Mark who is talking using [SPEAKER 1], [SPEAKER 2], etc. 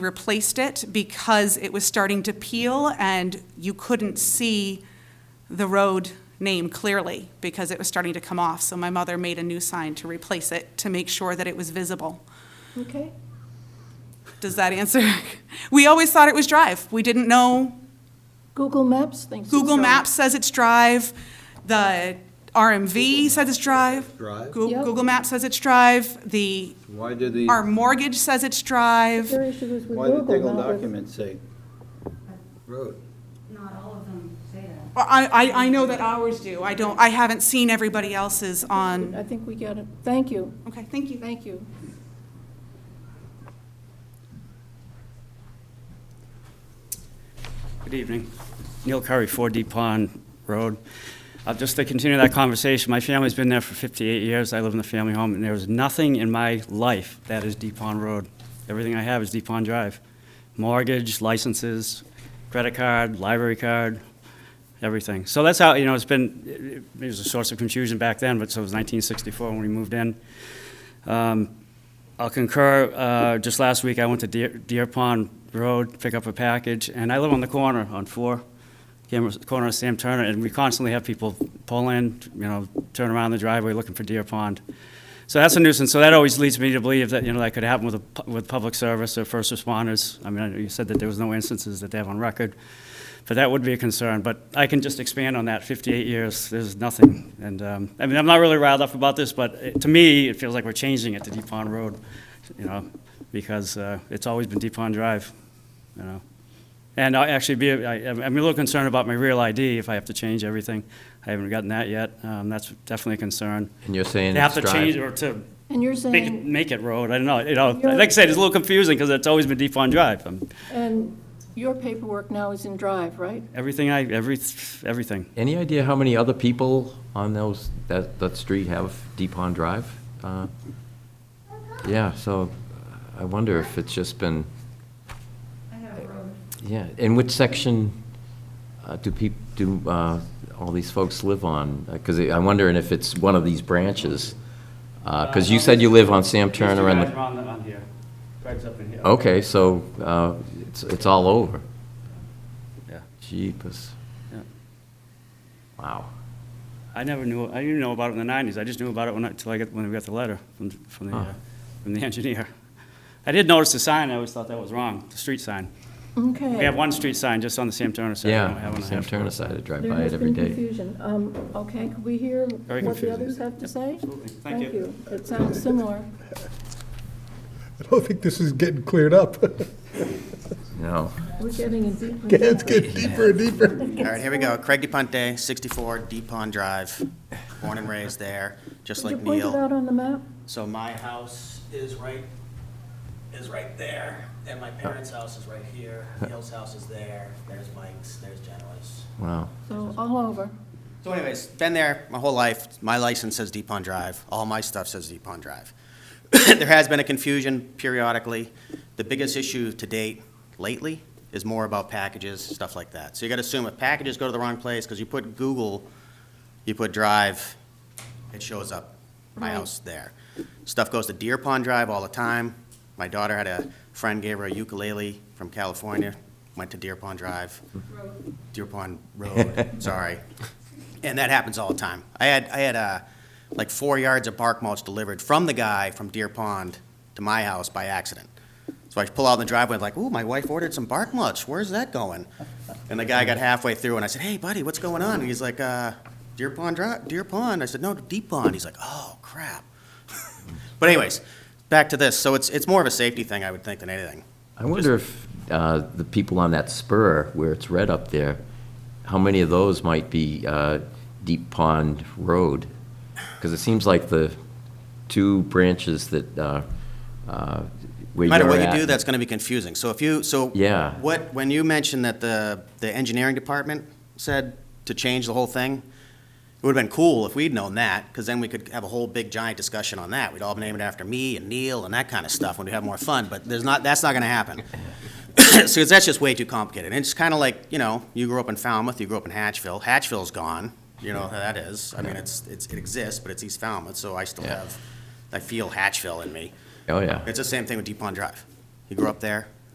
[SPEAKER 1] replaced it because it was starting to peel and you couldn't see the road name clearly because it was starting to come off. So my mother made a new sign to replace it to make sure that it was visible.
[SPEAKER 2] Okay.
[SPEAKER 1] Does that answer? We always thought it was Drive. We didn't know.
[SPEAKER 2] Google Maps thinks. it's
[SPEAKER 1] Google
[SPEAKER 2] on.
[SPEAKER 1] Maps says it's Drive. The RMV says it's Drive.
[SPEAKER 3] Drive.
[SPEAKER 1] Goo-
[SPEAKER 2] Yep.
[SPEAKER 1] Google Maps says it's Drive. The,
[SPEAKER 3] Why did the,
[SPEAKER 1] our mortgage says it's Drive.
[SPEAKER 2] Their issue is with
[SPEAKER 3] why did the
[SPEAKER 2] Google,
[SPEAKER 3] Diggle
[SPEAKER 2] not with.
[SPEAKER 3] document say road?
[SPEAKER 4] Not all of them say that.
[SPEAKER 1] Well, I, I, I know that ours do. I don't, I haven't seen everybody else's
[SPEAKER 5] Um,
[SPEAKER 1] on,
[SPEAKER 2] I think we got it. Thank you,
[SPEAKER 1] okay, thank you.
[SPEAKER 2] thank you.
[SPEAKER 5] Good evening. Neil Curry, 4D Pond Road. Uh, Just to continue that conversation, my family's been there for 58 years. I live in the family home, and there is nothing in my life that is Deep Pond Road. Everything I have is Deep Pond Drive. Mortgage, licenses, credit card, library card, everything. So that's how, you know, it's been, it- it was a source of confusion back then, but so it was 1964 when we moved in. Um, I'll concur, uh, just last week, I went to Deer Deer Pond Road, pick up a package, and I live on the corner, on four, camera- corner of Sam Turner, and we constantly have people pull in, you know, turn around the driveway looking for Deer Pond. So that's a nuisance, so that always leads me to believe that, you know, that could happen with, a pu- with public service or first responders. I mean, I know you said that there was no instances that they have on record, but that would be a concern, but I can just expand on that, 58 years, there's nothing, and, um, I mean, I'm not really riled up about this, but it- to me, it feels like we're changing it to Deep Pond Road, you know, because uh, it's always been Deep Pond Drive, you know. And I actually be, I, I'm I'm a little concerned about my real ID, if I have to change everything, I haven't gotten that yet, um, that's definitely a concern.
[SPEAKER 6] And you're saying
[SPEAKER 5] They have
[SPEAKER 6] it's
[SPEAKER 5] to change,
[SPEAKER 6] drive?
[SPEAKER 5] or to
[SPEAKER 2] And you're
[SPEAKER 5] make it,
[SPEAKER 2] saying,
[SPEAKER 5] make it road, I don't know, you know, like I said, it's a little confusing, because it's always been Deep Pond Drive, Um,
[SPEAKER 2] and your paperwork now is in Drive, right?
[SPEAKER 5] everything I, every, everything.
[SPEAKER 6] Any idea how many other people on those, that, that street have Deep Pond Drive? Uh, Yeah, so uh, I wonder if it's just been,
[SPEAKER 4] I have a road.
[SPEAKER 6] yeah, in which section uh, do peop, do uh, all these folks live on? Uh, Because I'm wondering if it's one of these branches. Because you said you live on Sam Turner and
[SPEAKER 5] These two guys
[SPEAKER 6] the, Oh.
[SPEAKER 5] are on the- on here. Craig's up in here.
[SPEAKER 6] okay, so uh, it's, it's all over.
[SPEAKER 5] Yeah.
[SPEAKER 6] Jeepers.
[SPEAKER 5] Yeah.
[SPEAKER 6] Wow.
[SPEAKER 5] I never knew, I didn't know about it in the nineties, I just knew about it when, I- till I got, when we got the letter from, from the, uh,
[SPEAKER 6] Huh.
[SPEAKER 5] from the engineer. I did notice the sign, I always thought that was wrong, the street sign.
[SPEAKER 2] Okay.
[SPEAKER 5] We have one street sign just on the Sam Turner side. we don't
[SPEAKER 6] Yeah,
[SPEAKER 5] have one
[SPEAKER 6] on the
[SPEAKER 5] on
[SPEAKER 6] Sam
[SPEAKER 5] Ashford.
[SPEAKER 6] Turner side, I drive
[SPEAKER 2] There
[SPEAKER 6] by
[SPEAKER 2] has
[SPEAKER 6] it every
[SPEAKER 2] been
[SPEAKER 6] day.
[SPEAKER 2] confusion. Um, okay, could we hear
[SPEAKER 5] Very
[SPEAKER 2] what the
[SPEAKER 5] confusing.
[SPEAKER 2] others have to say?
[SPEAKER 5] Absolutely. Thank you.
[SPEAKER 2] It sounds similar.
[SPEAKER 7] I don't think this is getting cleared up.
[SPEAKER 6] No.
[SPEAKER 2] We're getting in deeper.
[SPEAKER 7] It's getting deeper and deeper.
[SPEAKER 8] All right, here we go. Craig DePonte, 64 Deep Pond Drive, born and raised there, just
[SPEAKER 2] Did you
[SPEAKER 8] like
[SPEAKER 2] point it
[SPEAKER 8] Neil.
[SPEAKER 2] out on the map?
[SPEAKER 8] So my house is right, is right there, and my parents' house is right here. Neil's house is there, there's Mike's, there's Genoa's.
[SPEAKER 6] Wow.
[SPEAKER 2] So all over.
[SPEAKER 8] So anyways, been there my whole life. My license says Deep Pond Drive. All my stuff says Deep Pond Drive. there has been a confusion periodically. The biggest issue to date lately is more about packages, stuff like that. So you got to assume if packages go to the wrong place, because you put Google, you put Drive, it shows up, my
[SPEAKER 2] Right.
[SPEAKER 8] house there. Stuff goes to Deer Pond Drive all the time. My daughter had a friend gave her a ukulele from California, went to Deer Pond Drive. Deer Pond Road, sorry. And that happens all the time. I had, I had, uh, like four yards of bark mulch delivered from the guy from Deer Pond to my house by accident. So I pull out in the driveway, like, ooh, my wife ordered some bark mulch, where's that going? And the guy got halfway through and I said, hey buddy, what's going on? And he's like, uh, Deer Pond Drive, Deer Pond. I said, no, Deep Pond. He's like, oh crap. But anyways, back to this. So it's, it's more of a safety thing, I would think, than anything.
[SPEAKER 6] I wonder if uh, the people on that spur where it's red up there, how many of those might be uh, Deep Pond Road? Because it seems like the two branches that, uh, uh, where you're
[SPEAKER 8] No
[SPEAKER 6] at.
[SPEAKER 8] matter what you do, that's gonna be confusing. So if you, so.
[SPEAKER 6] Yeah.
[SPEAKER 8] What, when you mentioned that the, the engineering department said to change the whole thing, it would've been cool if we'd known that, because then we could have a whole big giant discussion on that. We'd all name it after me and Neil and that kind of stuff, when we have more fun, but there's not, that's not gonna happen. So that's just way too complicated. And it's kinda like, you know, you grew up in Falmouth, you grew up in Hatchville. Hatchville's gone, you know how that is. I mean, it's, it's, it exists, but it's East Falmouth, so I still
[SPEAKER 6] Yeah.
[SPEAKER 8] have, I feel Hatchville in me.
[SPEAKER 6] Oh, yeah.
[SPEAKER 8] It's the same thing with Deep Pond Drive. You grew up there,